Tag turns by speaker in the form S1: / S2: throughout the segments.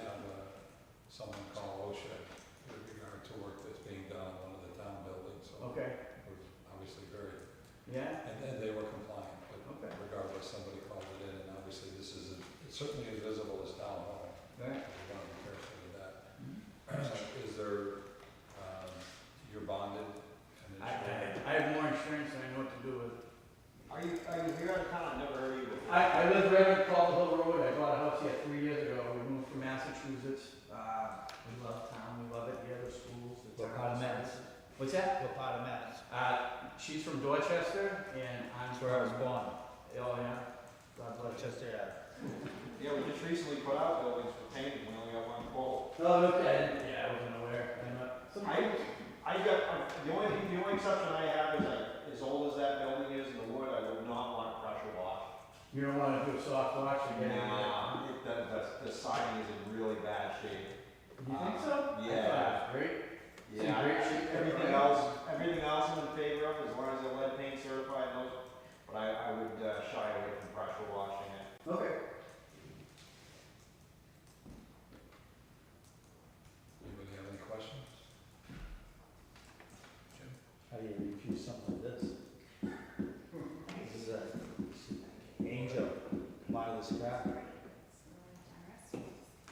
S1: uh, someone call OSHA with regard to work that's being done on one of the town buildings, so
S2: Okay,
S1: we're obviously very,
S2: yeah,
S1: and then they were compliant, but
S2: okay.
S1: regardless, somebody called it in, and obviously this is, it's certainly as visible as town hall.
S2: Right.
S1: We want to be careful with that.
S2: Mm-hmm.
S1: Is there, um, you're bonded and
S2: I, I,
S1: insured?
S2: I have more insurance than I know what to do with.
S3: Are you, are you here on town? I've never heard of you before.
S2: I, I live right on Cobble Hill Road, I bought a house here three years ago, we moved from Massachusetts. Uh, we love town, we love it, we have the schools, the
S4: What part of
S2: towns.
S4: Mass?
S2: What's that?
S4: What part of Mass?
S2: Uh, she's from Dorchester, and I'm
S4: That's
S2: from.
S4: where I was born,
S2: Oh, yeah, God bless you.
S4: Rochester Ave.
S3: Yeah, we just recently put out buildings for painting, we only got one pole.
S2: Oh, okay, yeah, I wasn't aware, I'm not. some-
S3: I, I got, I- the only, the only exception I have is like, as old as that building is in the wood, I would not want to pressure wash.
S2: You don't wanna do a soft watch again?
S3: Nah, it, the, the, the siding is in really bad shape.
S2: You think so? I thought
S3: Yeah.
S2: it was Great. It's in
S3: Yeah,
S2: great shape,
S3: everything
S2: right?
S3: else, everything else I'm in favor of, as long as the lead paint certified, and those, but I, I would uh, shy away from pressure washing it.
S2: Okay.
S1: Anybody have any questions?
S4: How do you refuse something like this? This is an angel, part of this crap,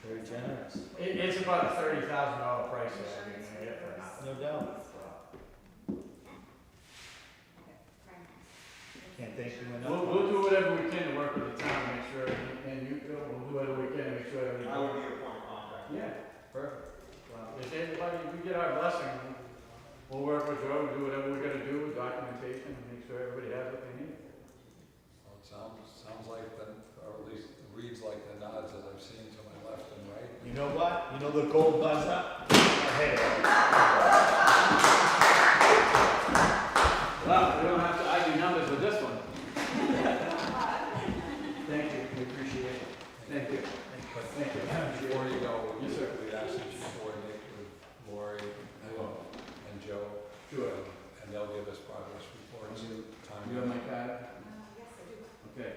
S4: very generous,
S2: It, it's about a thirty thousand dollar price that I can get for nothing.
S4: no doubt. Can't thank you
S2: We'll,
S4: enough.
S2: we'll do whatever we can to work with the town, to make sure, everything- and you, Bill, we'll do whatever we can to make sure everything.
S3: I would be a point of contact.
S2: Yeah, perfect. Well, If anybody, if we get our blessing, we'll work with Joe, do whatever we're gonna do with documentation, and make sure everybody has what they need.
S1: Well, it sounds, sounds like the, or at least reads like the nods that I've seen to my left and right.
S4: You know what, you know the gold buzz up? I hate it.
S2: Well, we don't have to argue numbers with this one. Thank you, we appreciate it. Thank you.
S1: But
S2: Thank you.
S1: Before you go,
S2: Yes, sir.
S1: we ask that you coordinate with Lori and Joe,
S2: Sure.
S1: and they'll give us progress reports.
S2: You
S1: Time.
S2: you have my card? Okay.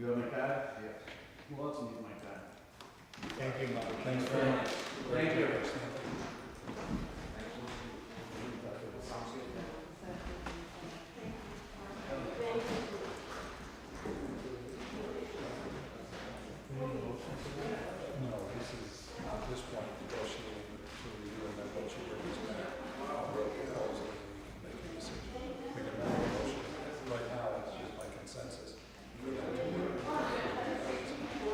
S2: You have my card? Yes. Who else needs my card?
S4: Thank you, Mom, thanks very much.
S2: Thank you.
S1: No, this is, at this point, negotiating to review and then once you bring this back, I'll write the proposal and we can make a decision. We can make a motion. Right now, it's just by consensus. You know, to do it. You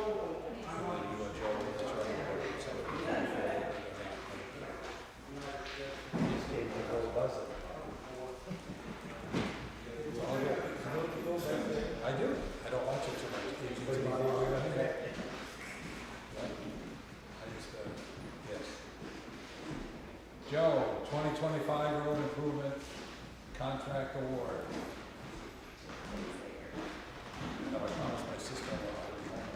S1: and Joe, let's try to work it so that we can move forward.
S4: Just gave the gold buzz up.
S1: I do. I don't watch it too much. It's my- I just, uh, yes. Joe, twenty twenty-five road improvement contract award. No, I promised my sister I would remind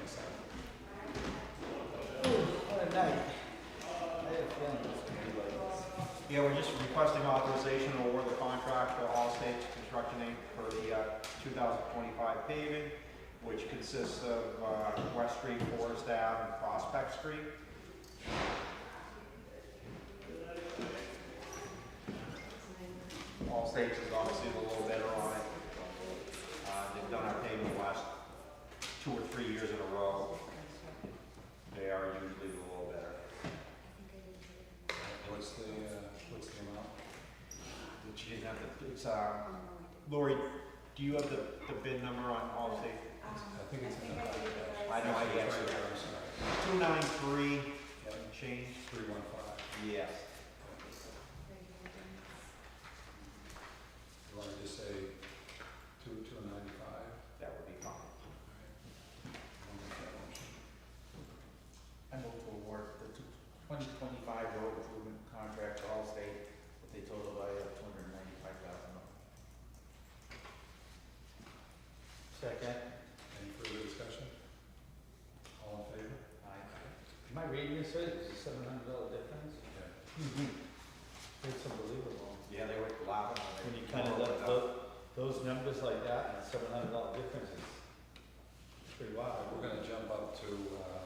S1: myself.
S4: What a night. I had a feeling it was gonna be like this.
S3: Yeah, we're just requesting authorization to award the contract to Allstate Construction Inc. for the uh, 2025 paving, which consists of uh, West Street, Forest Ave, and Prospect Street. Allstate is obviously a little better on it. Uh, They've done our paving the last two or three years in a row. They are usually a little better.
S1: What's the, uh, what's the amount?
S3: That you didn't have the, it's, um, Lori, do you have the, the bid number on Allstate?
S1: I think it's in the contract.
S3: I know, I
S1: It's
S3: guess.
S1: right there, I'm sorry.
S3: Two nine three
S1: Yeah,
S3: change?
S1: three one five.
S3: Yes.
S1: You want to just say two, two ninety-five?
S3: That would be fine.
S4: I move to award the 2025 road improvement contract to Allstate with a total value of $295,000. Second.
S1: Any further discussion? All in favor?
S4: Am I reading this right? It's a $700 difference?
S1: Yeah.
S4: It's unbelievable.
S3: Yeah, they were laughing
S4: Mm-hmm.
S3: when
S4: When
S3: they.
S4: you kind of
S3: come up
S4: look,
S3: with
S4: those, those numbers like that and $700 difference is pretty wild.
S1: We're gonna jump up to, uh,